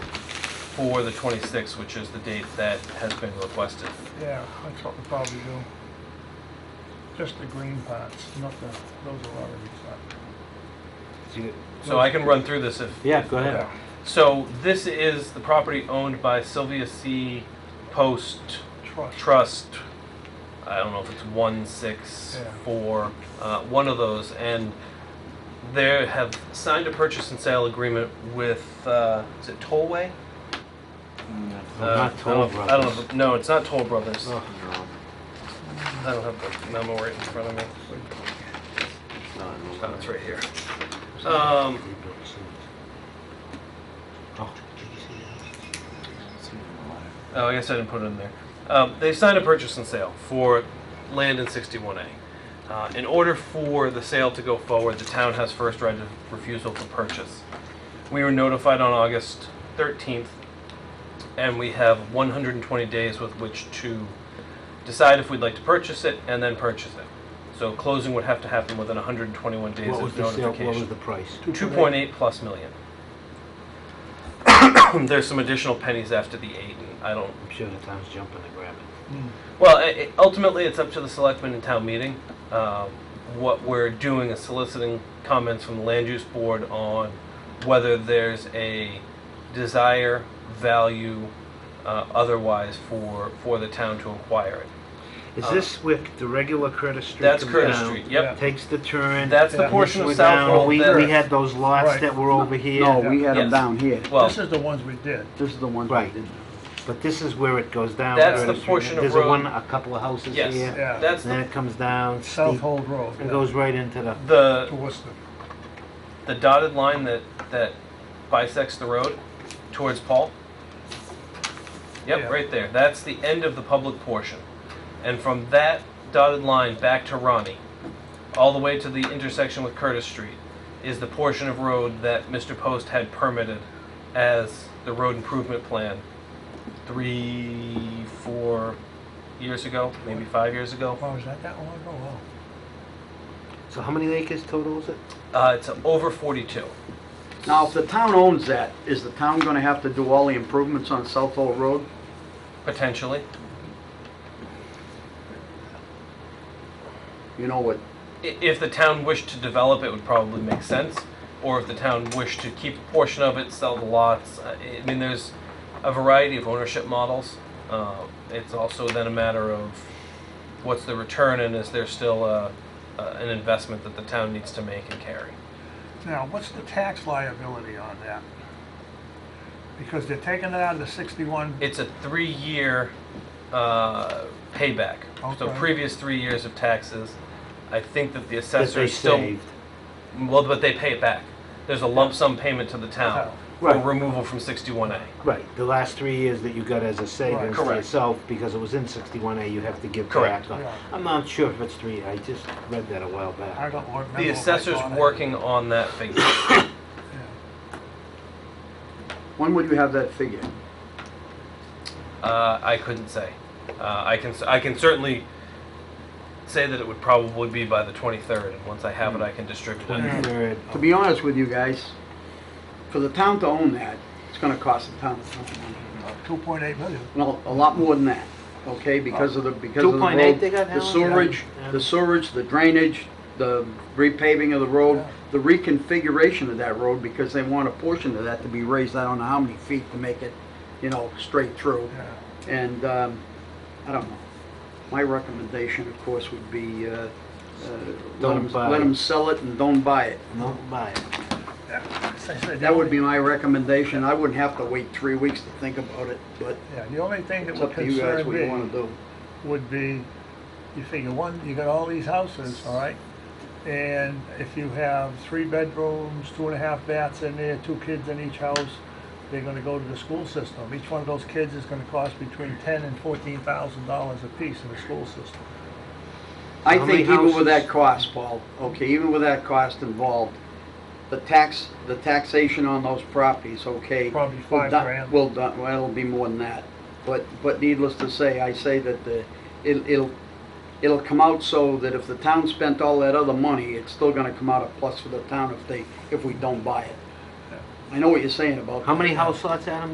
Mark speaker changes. Speaker 1: for the 26th, which is the date that has been requested.
Speaker 2: Yeah, that's what we'll probably do. Just the green parts, not the, those are already cut.
Speaker 1: So I can run through this if.
Speaker 3: Yeah, go ahead.
Speaker 2: Yeah,
Speaker 1: So this is the property owned by Sylvia C. Post
Speaker 2: Trust.
Speaker 1: Trust. I don't know if it's 164, uh, one of those. And they have signed a purchase and sale agreement with, uh, is it Tollway? Uh, I
Speaker 3: Not Toll
Speaker 1: don't- I don't
Speaker 3: Brothers.
Speaker 1: know. No, it's not Toll Brothers.
Speaker 3: Oh,
Speaker 1: I don't have the memo right in front of me.
Speaker 3: no, it's
Speaker 1: Oh,
Speaker 3: not.
Speaker 1: it's right here. Um,
Speaker 3: Oh.
Speaker 1: Oh, I guess I didn't put it in there. Um, they signed a purchase and sale for land in 61A. Uh, in order for the sale to go forward, the town has first right of refusal to purchase. We were notified on August 13th, and we have 120 days with which to decide if we'd like to purchase it and then purchase it. So closing would have to happen within 121 days
Speaker 3: What was
Speaker 1: of
Speaker 3: the sale, what was
Speaker 1: notification.
Speaker 3: the price?
Speaker 1: 2.8 plus million. There's some additional pennies after the eight, and I don't
Speaker 3: I'm sure the town's jumping to grab it.
Speaker 2: Hmm.
Speaker 1: well, i- i- ultimately, it's up to the selectmen and town meeting. Um, What we're doing is soliciting comments from the land use board on whether there's a desire, value, uh, otherwise for, for the town to acquire it.
Speaker 3: Is
Speaker 1: Uh,
Speaker 3: this with the regular Curtis Street?
Speaker 1: That's
Speaker 3: come
Speaker 1: Curtis
Speaker 3: down,
Speaker 1: Street, yep.
Speaker 2: Yeah.
Speaker 3: Takes the turn.
Speaker 1: That's the
Speaker 2: Yeah.
Speaker 1: portion
Speaker 3: we're
Speaker 1: of South
Speaker 3: down,
Speaker 1: Road
Speaker 3: We, we
Speaker 1: that,
Speaker 3: had those lots
Speaker 2: Right.
Speaker 3: that were over here.
Speaker 4: No, we had them
Speaker 1: Yes.
Speaker 4: down here.
Speaker 1: well,
Speaker 2: This is the ones we did.
Speaker 4: This is the one.
Speaker 3: Right. But this is where it goes down.
Speaker 1: That's the
Speaker 3: Curtis Street.
Speaker 1: portion of
Speaker 3: There's
Speaker 1: road-
Speaker 3: a one, a couple of houses
Speaker 1: yes,
Speaker 3: here.
Speaker 2: Yeah.
Speaker 1: that's
Speaker 3: Then
Speaker 1: the,
Speaker 3: it comes down
Speaker 2: South
Speaker 3: steep
Speaker 2: Hold Road.
Speaker 3: and goes right into the,
Speaker 2: To
Speaker 1: the,
Speaker 2: Worcester.
Speaker 1: the dotted line that, that bisects the road towards Paul.
Speaker 2: Yeah.
Speaker 1: Yep, right there. That's the end of the public portion. And from that dotted line back to Ronnie, all the way to the intersection with Curtis Street, is the portion of road that Mr. Post had permitted as the road improvement plan three, four years ago, maybe five years ago.
Speaker 2: Wow, Oh, is that that long ago? Wow.
Speaker 3: so how many acres total is it?
Speaker 1: Uh, it's over 42.
Speaker 4: Now, if the town owns that, is the town gonna have to do all the improvements on South Old Road?
Speaker 1: Potentially.
Speaker 4: You know what,
Speaker 1: I- If the town wished to develop, it would probably make sense. Or if the town wished to keep a portion of it, sell the lots. I I mean, there's a variety of ownership models. Uh, It's also then a matter of what's the return and is there still a, a- an investment that the town needs to make and carry?
Speaker 2: Now, what's the tax liability on that? Because they're taking it out of the 61,
Speaker 1: It's a three-year uh, payback. So
Speaker 2: Okay.
Speaker 1: previous three years of taxes, I think that the
Speaker 3: That
Speaker 1: assessor
Speaker 3: they
Speaker 1: is still.
Speaker 3: saved.
Speaker 1: Well, but they pay it back. There's a lump sum payment to the town for
Speaker 3: Right.
Speaker 1: removal from 61A.
Speaker 3: Right, the last three years that you got as a savings to
Speaker 1: Correct.
Speaker 3: yourself, because it was in 61A, you have to give
Speaker 1: Correct.
Speaker 3: back. on-
Speaker 2: Yeah.
Speaker 3: I'm not sure if it's three, I just read that a while
Speaker 2: I
Speaker 3: back.
Speaker 2: don't remember.
Speaker 1: The
Speaker 2: what I
Speaker 1: assessor's
Speaker 2: bought it.
Speaker 1: working on that figure.
Speaker 2: Yeah.
Speaker 4: when would you have that figure?
Speaker 1: Uh, I couldn't say. Uh, I can I can certainly say that it would probably be by the 23rd, and once I have it, I can distribute it.
Speaker 3: Twenty-third.
Speaker 4: To be honest with you guys, for the town to own that, it's gonna cost the town a ton of money.
Speaker 2: About 2.8 million.
Speaker 4: No, a lot more than that, okay, because of the, because of the
Speaker 3: 2.8
Speaker 4: road,
Speaker 3: they got now?
Speaker 4: the sewerage,
Speaker 3: Yeah.
Speaker 4: the sewerage, the drainage, the repaving of the road,
Speaker 2: Yeah.
Speaker 4: the reconfiguration of that road, because they want a portion of that to be raised, I don't know how many feet to make it, you know, straight through.
Speaker 2: Yeah.
Speaker 4: And, um, I don't know, my recommendation, of course, would be, uh, uh, let
Speaker 3: Don't
Speaker 4: them,
Speaker 3: buy
Speaker 4: let
Speaker 3: it.
Speaker 4: 'em sell it and don't buy it.
Speaker 3: No, buy it.
Speaker 2: Yeah, as I said, the
Speaker 4: That would
Speaker 2: only-
Speaker 4: be my recommendation, I wouldn't have to wait three weeks to think about it, but
Speaker 2: Yeah, the only thing that
Speaker 4: it's
Speaker 2: would
Speaker 4: up to you guys
Speaker 2: concern
Speaker 4: what you wanna
Speaker 2: me
Speaker 4: do.
Speaker 2: would be, you figure one, you got all these houses, all right? And if you have three bedrooms, two and a half baths in there, two kids in each house, they're gonna go to the school system. Each one of those kids is gonna cost between ten and fourteen thousand dollars apiece in the school system.
Speaker 4: I
Speaker 3: How
Speaker 4: think
Speaker 3: many
Speaker 4: even with that
Speaker 3: houses?
Speaker 4: cost, Paul, okay, even with that cost involved, the tax, the taxation on those properties, okay.
Speaker 2: Probably
Speaker 4: will
Speaker 2: five
Speaker 4: do-
Speaker 2: grand.
Speaker 4: Will, do- well, it'll be more than that. But, but needless to say, I say that the, it'll, it'll, it'll come out so that if the town spent all that other money, it's still gonna come out a plus for the town if they, if we don't buy it. I know what you're saying about.
Speaker 3: How many house lots, Adam?